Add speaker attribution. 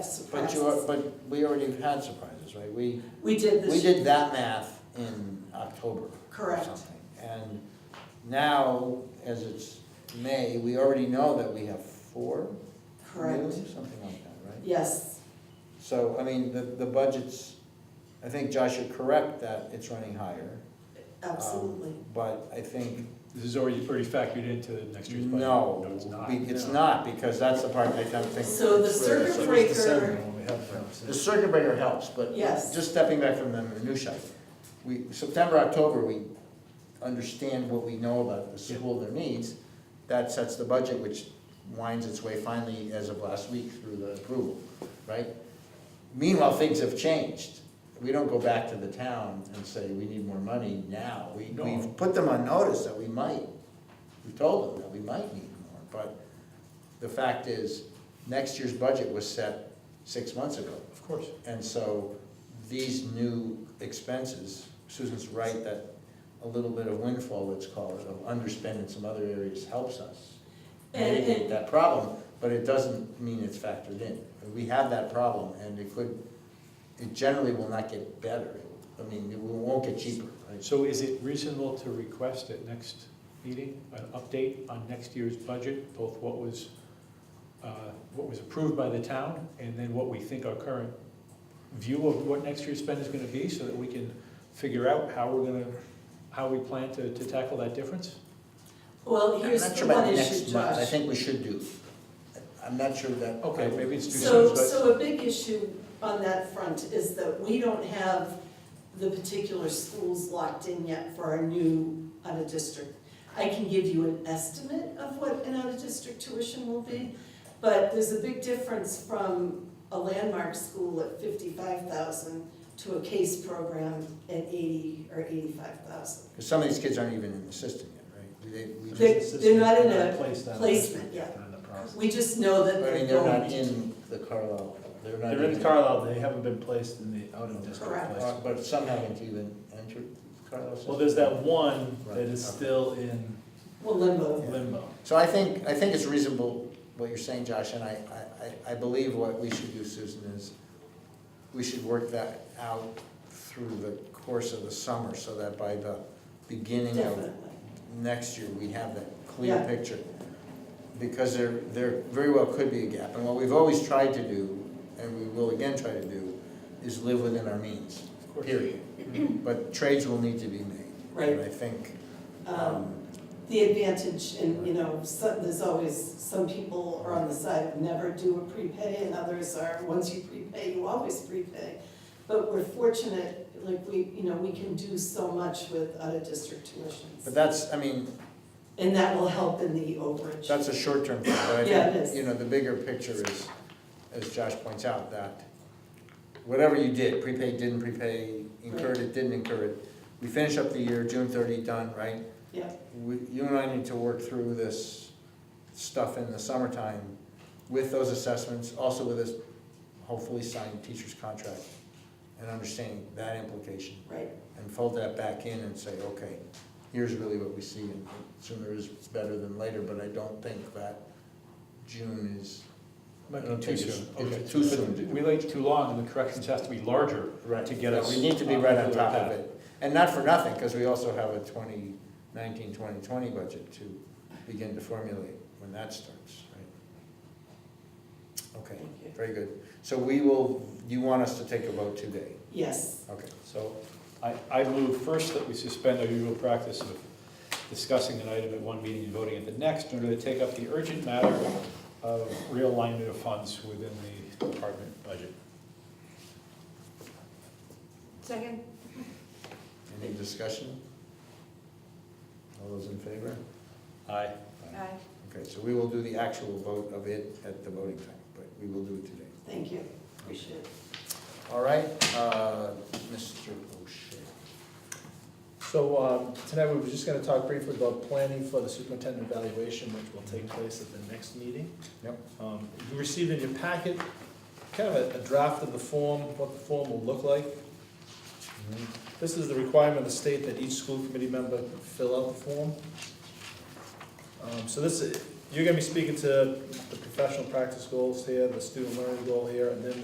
Speaker 1: But
Speaker 2: surprises.
Speaker 1: you are, but we already have had surprises, right? We,
Speaker 2: We did
Speaker 1: we
Speaker 2: this,
Speaker 1: did that math in October or
Speaker 2: Correct.
Speaker 1: something. And now, as it's May, we already know that we have four new,
Speaker 2: correct,
Speaker 1: something like that, right?
Speaker 2: yes,
Speaker 1: So, I mean, the, the budget's, I think Josh, you're correct that it's running higher. um,
Speaker 2: absolutely.
Speaker 1: But I think,
Speaker 3: This is already already factored into next year's budget.
Speaker 1: no,
Speaker 3: it's not.
Speaker 1: be- it's not, because that's the part I don't think.
Speaker 2: So the circuit breaker,
Speaker 1: The circuit breaker helps, but
Speaker 2: Yes.
Speaker 1: just stepping back from the minutia, we, September, October, we understand what we know about the school, their needs. That sets the budget, which winds its way finally as of last week through the approval, right? Meanwhile, things have changed. We don't go back to the town and say, we need more money now. We,
Speaker 3: No.
Speaker 1: we've put them on notice that we might, we told them that we might need more, but the fact is, next year's budget was set six months ago.
Speaker 3: Of course.
Speaker 1: And so these new expenses, Susan's right that a little bit of windfall, let's call it, of underspend in some other areas helps us
Speaker 2: And-
Speaker 1: mitigate
Speaker 2: and-
Speaker 1: that problem, but it doesn't mean it's factored in. We have that problem and it could, it generally will not get better. I mean, it won't get cheaper, right?
Speaker 3: So is it reasonable to request at next meeting, an update on next year's budget, both what was, uh, what was approved by the town, and then what we think our current view of what next year's spend is gonna be, so that we can figure out how we're gonna, how we plan to, to tackle that difference?
Speaker 2: well,
Speaker 1: I'm
Speaker 2: here's
Speaker 1: not
Speaker 2: the
Speaker 1: sure about
Speaker 2: one issue,
Speaker 1: next month, I
Speaker 2: Josh.
Speaker 1: think we should do. I'm not sure that.
Speaker 3: Okay, maybe it's too
Speaker 2: So,
Speaker 3: soon, but,
Speaker 2: so a big issue on that front is that we don't have the particular schools locked in yet for our new out-of-district. I can give you an estimate of what an out-of-district tuition will be, but there's a big difference from a landmark school at fifty-five thousand to a case program at eighty or eighty-five thousand.
Speaker 1: Because some of these kids aren't even in the system yet, right? They- we just-
Speaker 2: They- they're not in a placement yet. We just know that
Speaker 1: I
Speaker 2: they're
Speaker 1: mean, they're not
Speaker 2: going.
Speaker 1: in the Carlisle, they're not.
Speaker 4: They're in Carlisle, they haven't been placed in the out-of-district
Speaker 2: Correct.
Speaker 1: Uh,
Speaker 4: placement.
Speaker 1: But some haven't even entered Carlisle. system.
Speaker 4: Well, there's that one that is
Speaker 1: Right.
Speaker 4: still in
Speaker 2: Well, limbo.
Speaker 4: limbo.
Speaker 1: So I think, I think it's reasonable what you're saying, Josh, and I, I- I, I believe what we should do, Susan, is we should work that out through the course of the summer, so that by the beginning of
Speaker 2: Definitely.
Speaker 1: next year, we have that clear
Speaker 2: Yeah.
Speaker 1: picture. Because there, there very well could be a gap, and what we've always tried to do, and we will again try to do, is live within our means,
Speaker 3: Of course.
Speaker 1: period. But trades will need to be made.
Speaker 2: Right.
Speaker 1: And I think,
Speaker 2: Um,
Speaker 1: um,
Speaker 2: The advantage, and you know, some, there's always, some people are on the side of never do a prepay, and others are, once you prepay, you always prepay. But we're fortunate, like, we, you know, we can do so much with out-of-district
Speaker 1: but
Speaker 2: tuitions,
Speaker 1: that's, I mean,
Speaker 2: and that will help in the overage.
Speaker 1: That's a short-term thing, but I
Speaker 2: Yeah, it is.
Speaker 1: think, you know, the bigger picture is, as Josh points out, that whatever you did, prepaid, didn't prepay, incurred it, didn't incur it, we finish up the year, June thirty, done, right?
Speaker 2: Yeah.
Speaker 1: We, you and I need to work through this stuff in the summertime with those assessments, also with this hopefully signed teacher's contract and understanding that implication
Speaker 2: Right,
Speaker 1: and fold that back in and say, okay, here's really what we see, and sooner is better than later, but I don't think that June is,
Speaker 3: might
Speaker 1: I
Speaker 3: be
Speaker 1: don't
Speaker 3: too
Speaker 1: think it's-
Speaker 3: soon.
Speaker 1: it's
Speaker 3: Okay.
Speaker 1: too soon to-
Speaker 3: We wait too long, and the corrections has to be larger
Speaker 1: right,
Speaker 3: to get
Speaker 1: Yeah,
Speaker 3: us.
Speaker 1: We need to be
Speaker 3: uh,
Speaker 1: right on
Speaker 3: onto
Speaker 1: top
Speaker 3: that
Speaker 1: of
Speaker 3: path.
Speaker 1: it, and not for nothing, because we also have a 2019-2020 budget to begin to formulate when that starts, right? Okay,
Speaker 2: thank you.
Speaker 1: very good, so we will, you want us to take a vote today,
Speaker 2: Yes,
Speaker 1: okay,
Speaker 3: So I, I move first that we suspend our usual practice of discussing an item at one meeting and voting at the next in order to take up the urgent matter of realignment of funds within the department budget.
Speaker 5: Second.
Speaker 1: any discussion? All those in favor?
Speaker 3: Aye.
Speaker 2: Uh,
Speaker 5: Aye.
Speaker 1: Okay, so we will do the actual vote of it at the voting time, but we will do it today.
Speaker 2: thank you, appreciate it.
Speaker 1: All right, uh, Mr. O'Shea.
Speaker 4: So um, tonight, we were just gonna talk briefly about planning for the superintendent evaluation, which will take place at the next meeting.
Speaker 1: Yep.
Speaker 4: Um, You received in your packet kind of a- a draft of the form, what the form will look like. This is the requirement of the state that each school committee member fill out the form. Um, So this, You're gonna be speaking to the professional practice goals here, the student learning goal here, and then